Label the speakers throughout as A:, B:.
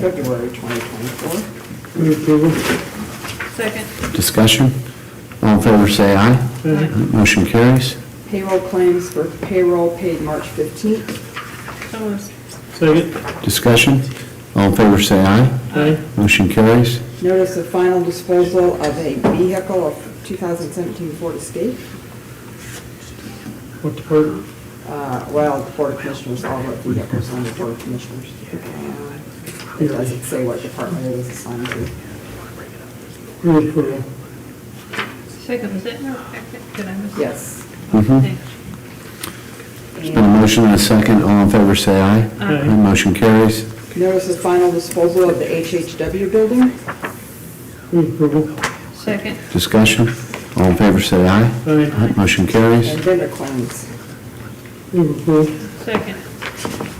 A: February 2024.
B: Move approval.
C: Second.
D: Discussion? All in favor, say aye. Motion carries.
A: Payroll claims for payroll paid March 15th.
C: So moved.
B: Second.
D: Discussion? All in favor, say aye.
B: Aye.
D: Motion carries.
A: Notice of final disposal of a vehicle of 2017 Ford Escape.
B: What department?
A: Uh, Well, the Board of Commissioners, all the vehicles on the Board of Commissioners. Uh, It doesn't say what department it was assigned to.
B: Move approval.
C: Second, was that, no, second, did I miss? it?
A: Yes.
D: Mhm.
C: Thanks.
D: There's been a motion and a second. All in favor, say aye.
B: Aye.
D: Motion carries.
A: Notice of final disposal of the HHW building.
B: Move approval.
C: Second.
D: Discussion? All in favor, say aye.
B: Aye.
D: Motion carries.
A: And vendor claims.
B: Move approval.
C: Second.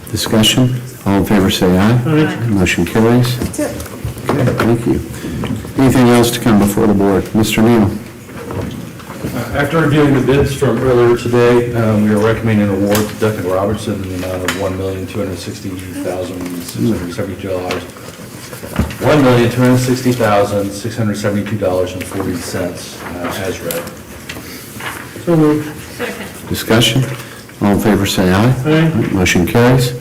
D: Discussion? All in favor, say aye.
B: Aye.
D: Motion carries.
A: That's it.
D: Okay, thank you. Anything else to come before the board? Mr. Neal?
E: Uh, After reviewing the bids from earlier today, um, we are recommending an award to Duncan Robertson in the amount of one million, two hundred sixty thousand, six hundred seventy-two dollars. One million, two hundred sixty thousand, six hundred seventy-two dollars and forty cents, uh, as read.
B: So moved.
C: Second.
D: Discussion? All in favor, say aye.
B: Aye.
D: Motion carries.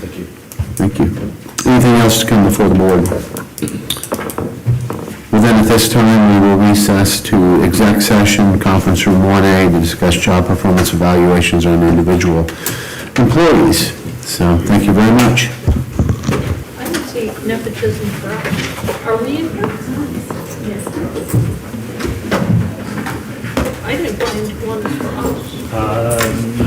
E: Thank you.
D: Thank you. Anything else to come before the board? Well, then, at this time, we will recess to exec session, conference room 1A, to discuss job performance evaluations on individual employees. So, thank you very much.
C: I would say nepotism for all. Are we in here? Yes. I didn't find one for us.
F: Uh,